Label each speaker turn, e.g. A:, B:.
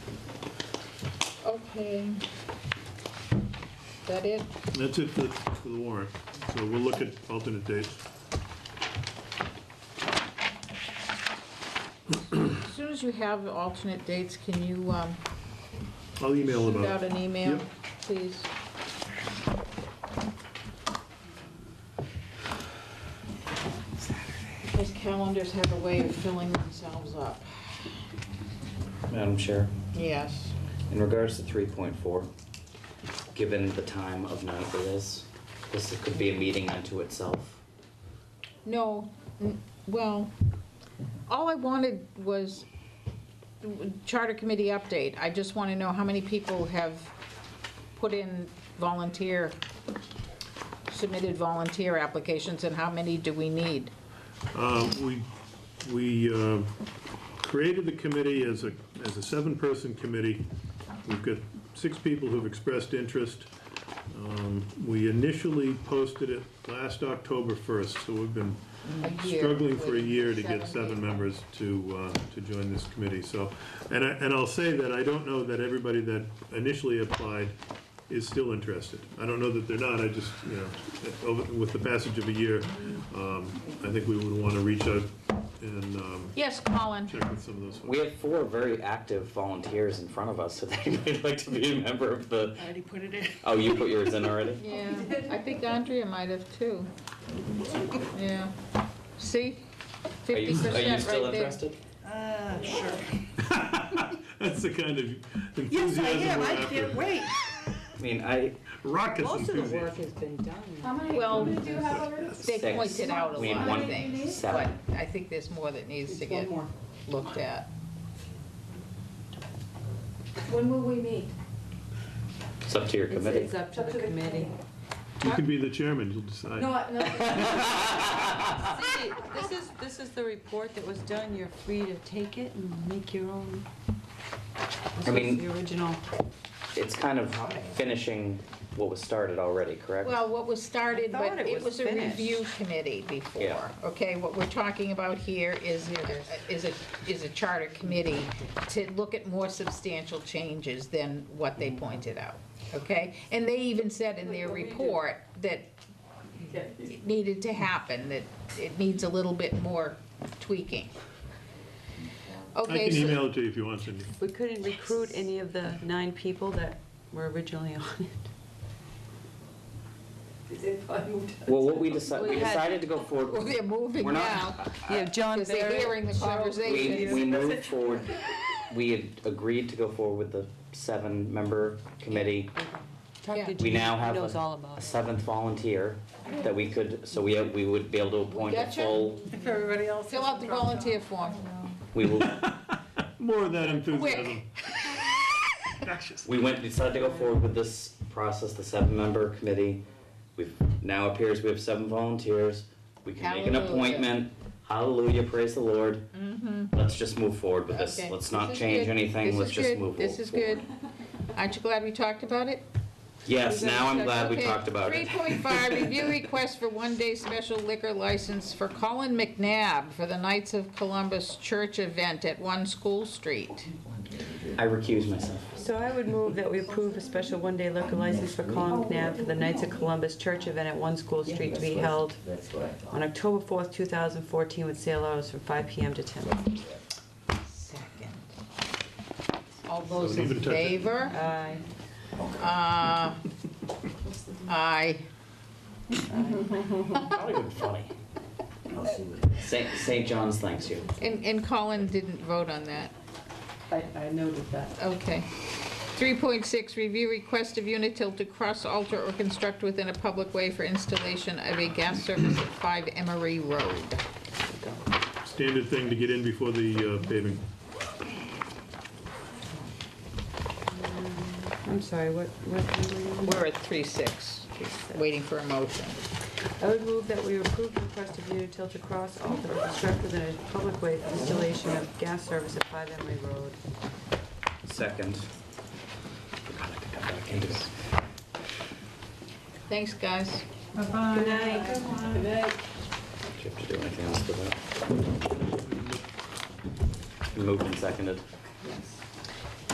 A: Okay. That it?
B: That's it for, for the warrant. So we'll look at alternate dates.
A: As soon as you have alternate dates, can you um,
B: I'll email
A: shoot
B: them
A: out
B: out.
A: an email,
B: Yep.
A: please? Those calendars have a way of filling themselves up.
C: Madam Chair,
A: Yes.
C: in regards to 3.4, given the time of night it is, this could be a meeting unto itself.
A: No, n- well, all I wanted was charter committee update. I just want to know how many people have put in volunteer, submitted volunteer applications, and how many do we need?
B: Uh, We, we uh, created the committee as a, as a seven-person committee. We've got six people who've expressed interest. Um, We initially posted it last October 1st, so we've been
A: A year
B: struggling for a
A: with
B: year to get
A: people.
B: seven members to, uh, to join this committee, so. And I, and I'll say that I don't know that everybody that initially applied is still interested. I don't know that they're not, I just, you know, over- with the passage of a year, um, I think we would want to reach out and um,
A: Yes, Colin.
B: check with some of those folks.
C: We have four very active volunteers in front of us, so they might like to be a member of the,
D: I already put it in.
C: oh, you put yours in already?
A: Yeah, I think Andrea might have too. Yeah. See?
C: Are
A: Fifty
C: you,
A: percent
C: are
A: right there.
C: you still interested?
D: Uh, sure.
B: That's the kind of
D: Yes, I
B: enthusiasm
D: am,
B: we're
D: I can't
B: after.
D: wait.
C: I mean, I,
B: Raucous
E: Most of the work
B: enthusiasm.
E: has been done.
F: How many, how
A: Well-
F: many do you have already?
A: They
C: Six.
A: pointed out a
C: We need
A: lot
C: one
A: of things, but
C: seven.
A: I think there's more that needs to
E: Just
A: get
E: one more.
A: looked at.
F: When will we meet?
C: it's up to your
E: It's
C: committee.
E: it's up to the committee.
B: You can be the chairman, you'll decide.
F: No, I- no.
E: Cindy, this is, this is the report that was done. You're free to take it and make your own. This
C: I
E: was
C: mean-
E: The original.
C: It's kind of finishing what was started already, correct?
A: Well, what was started,
E: I thought
A: but
E: it
A: it
E: was
A: was a
E: finished.
A: review committee before,
C: Yeah.
A: okay? What we're talking about here is, is a, is a charter committee to look at more substantial changes than what
E: Mm-hmm.
A: they pointed out, okay? And they even said in their report that it needed to happen, that it needs a little bit more tweaking.
B: I
A: Okay,
B: can
A: so-
B: email it to you if you want, Cindy.
E: We couldn't recruit any of the nine people that were originally on it.
C: Well, what we decided, we
E: We had-
C: decided to go forward.
A: Well, they're moving
C: We're not-
A: now,
E: You have John
A: because they're hearing the
C: We,
A: conversation.
C: we moved forward, we had agreed to go forward with the seven-member committee.
A: Yeah.
E: Talk to
C: We now
E: He
C: have
E: knows all
C: a
E: about
C: a
E: it.
C: seventh volunteer that we could, so we, we would be able to appoint a
A: Gotcha.
C: full,
D: If everybody else.
A: Fill out the volunteer form.
C: we will,
B: More of that enthusiasm.
A: Quick.
C: we went, decided to go forward with this process, the seven-member committee. We've, now appears we have seven volunteers, we can make an
A: Hallelujah. Mm-hmm.
C: appointment, hallelujah, praise the Lord. Let's just move forward with this,
A: Okay.
C: let's
A: This
C: not
A: is
C: change
A: good. This
C: anything, let's
A: is
C: just
A: good.
C: move forward.
A: This is good. Aren't you glad we talked about it?
C: Yes, now I'm glad we
A: Okay.
C: talked about it.
A: 3.5, review request for one-day special liquor license for Colin McNabb for the Knights of Columbus Church event at One School Street.
C: I recuse myself.
E: So I would move that we approve a special one-day liquor license for Colin McNabb for the Knights of Columbus Church event at One School Street to be held on October 4th, 2014, with sale hours from 5 PM to 10.
A: Second. All those
B: Don't
A: in
B: even touch it.
A: favor?
E: Aye.
A: Uh, Aye.
C: Not even funny. St. St. John's thanks you.
A: And and Colin didn't vote on that.
E: I, I noted that.
A: Okay. 3.6, review request of Unitil to cross alter or construct within a public way for installation of a gas service at 5 Emery Road.
B: Standard thing to get in before the uh, paving.
E: I'm sorry, what, what? number were you on?
A: We're at 3.6, waiting for a motion.
E: I would move that we approve the request of Unitil to cross alter or construct within a public way for installation of gas service at 5 Emery Road.
C: Second. God, I could come back into this.
A: Thanks, guys.
E: Good night.
C: Do you have to do anything else for that? Moved and seconded.